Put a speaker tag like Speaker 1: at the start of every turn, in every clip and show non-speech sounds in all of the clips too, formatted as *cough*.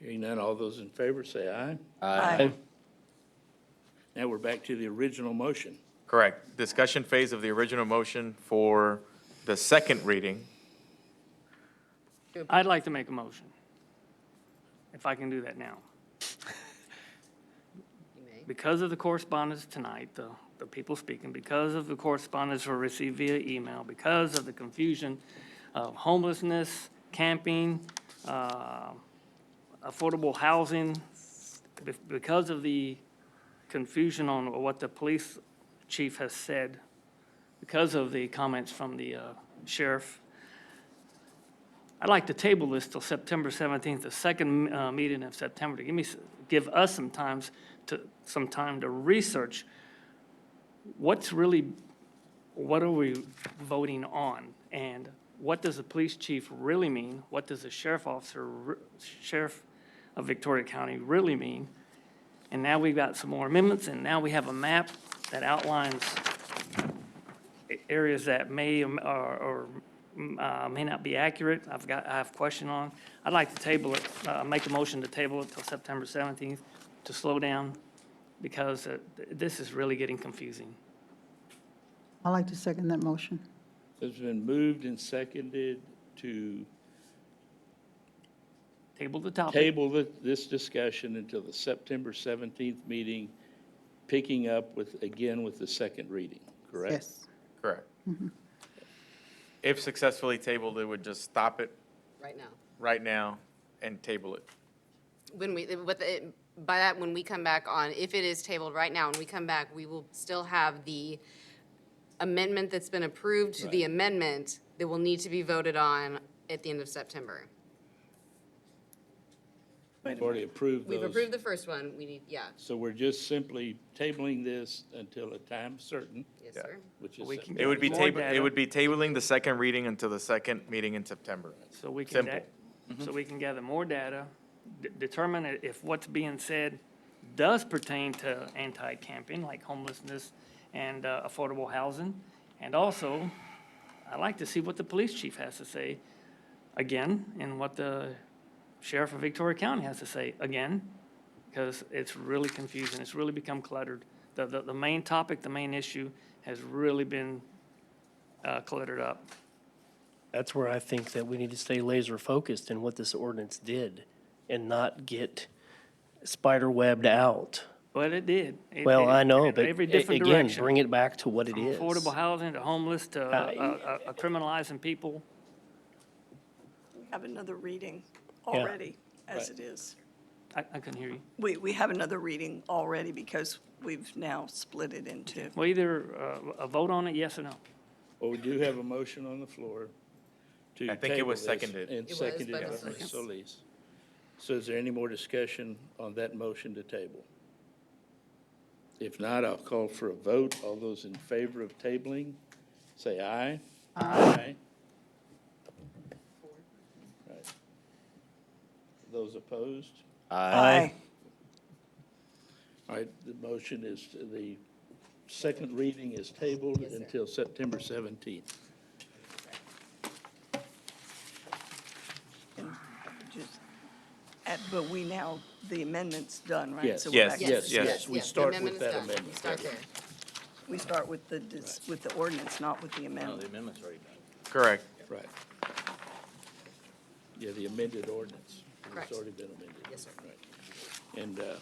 Speaker 1: Hearing none, all those in favor say aye.
Speaker 2: Aye.
Speaker 1: Now we're back to the original motion.
Speaker 3: Correct. Discussion phase of the original motion for the second reading.
Speaker 4: I'd like to make a motion, if I can do that now. Because of the correspondence tonight, the, the people speaking, because of the correspondence we received via email, because of the confusion of homelessness, camping, uh, affordable housing, be- because of the confusion on what the police chief has said, because of the comments from the uh, sheriff, I'd like to table this till September 17th, the second uh, meeting of September, to give me, s- give us some times to, some time to research what's really, what are we voting on? And what does the police chief really mean? What does the sheriff officer, re- sheriff of Victoria County really mean? And now we've got some more amendments, and now we have a map that outlines a- areas that may um, or, or mm, uh, may not be accurate, I've got, I have question on. I'd like to table it, uh, make a motion to table it till September 17th to slow down because uh, th- this is really getting confusing.
Speaker 2: I'd like to second that motion.
Speaker 1: It's been moved and seconded to
Speaker 4: Table the topic.
Speaker 1: table thi- this discussion until the September 17th meeting, picking up with, again, with the second reading, correct?
Speaker 2: Yes.
Speaker 3: Correct. Mm-hmm. If successfully tabled, it would just stop it
Speaker 5: right now.
Speaker 3: right now and table it.
Speaker 5: When we, with, it- by that, when we come back on, if it is tabled right now and we come back, we will still have the amendment that's been approved to the amendment that will need to be voted on at the end of September.
Speaker 1: We've already approved
Speaker 5: We've
Speaker 1: those.
Speaker 5: approved the first one, we need, yeah,
Speaker 1: So we're just simply tabling this until a time certain,
Speaker 5: yes,
Speaker 3: Yeah.
Speaker 5: sir.
Speaker 1: which is
Speaker 4: We can-
Speaker 3: It would be
Speaker 4: More
Speaker 3: table,
Speaker 4: data.
Speaker 3: it would be tabling the second reading until the second meeting in September.
Speaker 4: So we can,
Speaker 3: Simple.
Speaker 4: da- so we can gather more data, de- determine i- if what's being said does pertain to anti-camping, like homelessness and uh, affordable housing. And also, I'd like to see what the police chief has to say again, and what the sheriff of Victoria County has to say again, because it's really confusing, it's really become cluttered. The, the, the main topic, the main issue has really been uh, cluttered up.
Speaker 6: That's where I think that we need to stay laser focused in what this ordinance did and not get spider webbed out.
Speaker 4: But it did. It-
Speaker 6: Well,
Speaker 4: it-
Speaker 6: I know,
Speaker 4: it-
Speaker 6: but
Speaker 4: Every
Speaker 6: a-
Speaker 4: different
Speaker 6: again,
Speaker 4: direction.
Speaker 6: bring it back to what it
Speaker 4: From
Speaker 6: is.
Speaker 4: Affordable housing to homeless to uh, uh, uh, criminalizing people.
Speaker 7: have another reading
Speaker 6: Yeah.
Speaker 7: already as it is.
Speaker 4: I, I couldn't hear you.
Speaker 7: We, we have another reading already because we've now split it into.
Speaker 4: Well, either uh, a vote on it, yes or no.
Speaker 1: Well, we do have a motion on the floor to.
Speaker 3: I think it was
Speaker 1: table this,
Speaker 3: seconded.
Speaker 1: And
Speaker 5: It was,
Speaker 1: seconded
Speaker 5: but
Speaker 1: by
Speaker 5: it's-
Speaker 1: Ms. Solis. So is there any more discussion on that motion to table? If not, I'll call for a vote. All those in favor of tabling, say aye. Aye. Right. Those opposed?
Speaker 7: Aye.
Speaker 1: All right, the motion is, the second reading is tabled until September 17th.
Speaker 7: and just- at- But we now, the amendment's done, right?
Speaker 1: Yes.
Speaker 7: So we're
Speaker 3: Yes,
Speaker 7: back to-
Speaker 3: yes, yes.
Speaker 1: we
Speaker 5: yeah, the
Speaker 1: start with
Speaker 5: amendment is
Speaker 1: that
Speaker 5: done. We
Speaker 1: amendment.
Speaker 5: Start there.
Speaker 7: We start with the, dis- with the ordinance, not with the
Speaker 1: Oh,
Speaker 7: amendment.
Speaker 3: Correct.
Speaker 1: Right. Yeah, the amended ordinance.
Speaker 5: Correct.
Speaker 1: It's already been amended.
Speaker 5: Yes, sir.
Speaker 1: Right. And, uh,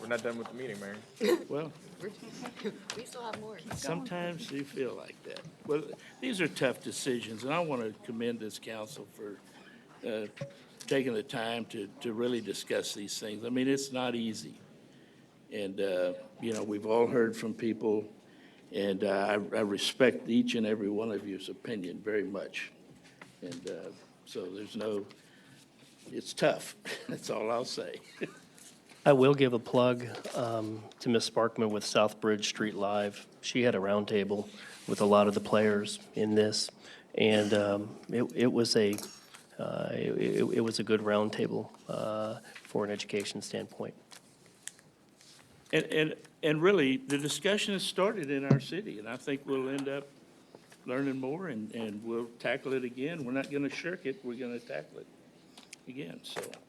Speaker 3: We're not done with the meeting, Mayor.
Speaker 1: well,
Speaker 5: We're- *laughs* We still have more.
Speaker 1: sometimes you feel like that. Well, these are tough decisions, and I want to commend this council for uh, taking the time to, to really discuss these things. I mean, it's not easy. And, uh, you know, we've all heard from people, and uh, I I respect each and every one of you's opinion very much. And uh, so there's no, it's tough, *laughs* that's all I'll say.
Speaker 6: I will give a plug um, to Ms. Sparkman with Southbridge Street Live. She had a roundtable with a lot of the players in this, and um, it it was a, uh, it it- it was a good roundtable uh, for an education standpoint.
Speaker 1: And, and, and really, the discussion has started in our city, and I think we'll end up learning more, and, and we'll tackle it again. We're not going to shirk it, we're going to tackle it. again, so.